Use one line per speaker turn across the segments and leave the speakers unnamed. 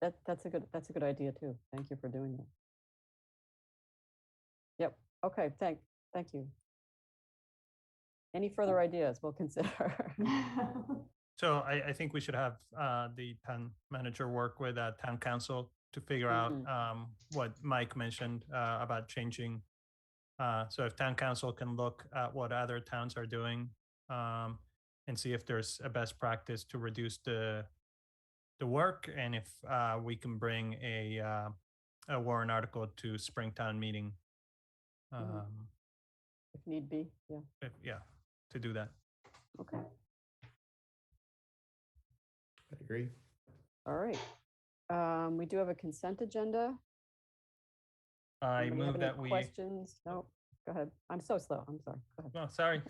that, that's a good, that's a good idea too. Thank you for doing that. Yep, okay, thank, thank you. Any
Hmm.
further ideas we'll consider?
So I, I think we should have uh, the town manager work with uh, town council to figure
Mhm.
out um, what Mike mentioned uh, about changing. Uh, so if town council can look at what other towns are doing um, and see if there's a best practice to reduce the the work and if uh, we can bring a uh, a warrant article to Springtown meeting.
Mhm.
Um,
If need be, yeah,
if- yeah, to do that.
okay,
I agree.
all right. Um, We do have a consent agenda.
I
Anybody have
move
any
that we.
Questions? No, go ahead. I'm so slow, I'm sorry. Go ahead.
No, sorry.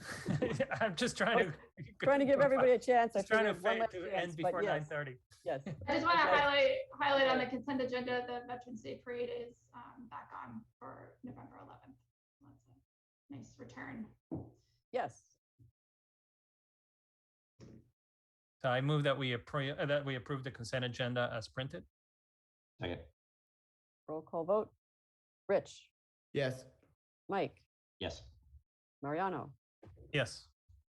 I'm just trying to.
Trying to give everybody a chance. I
Just trying to
figured one
fa-
last
to
chance,
end
but
before nine
yes,
thirty.
Yes,
I just want to
Okay.
highlight, highlight on the consent agenda, the Veterans Day Parade is um, back on for November 11th. That's a Nice return.
yes,
So I move that we approve, that we approve the consent agenda as printed.
Second.
roll call vote. Rich,
Yes.
Mike,
Yes.
Mariano,
Yes.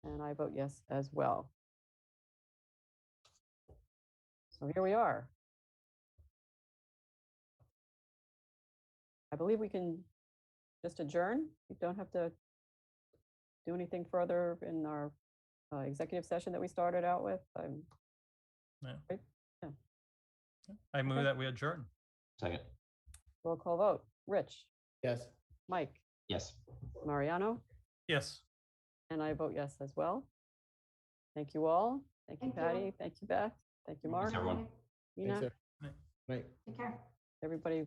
and I vote yes as well. So here we are. I believe we can just adjourn. We don't have to do anything further in our uh, executive session that we started out with. Um, I'm-
I
Okay.
move that we adjourn.
Second.
Roll call vote. Rich,
Yes.
Mike,
Yes.
Mariano,
Yes.
and I vote yes as well. Thank you all. Thank you,
Thank you.
Patty. Thank you, Beth. Thank you, Mark,
everyone.
Nina,
Right.
Take care.
everybody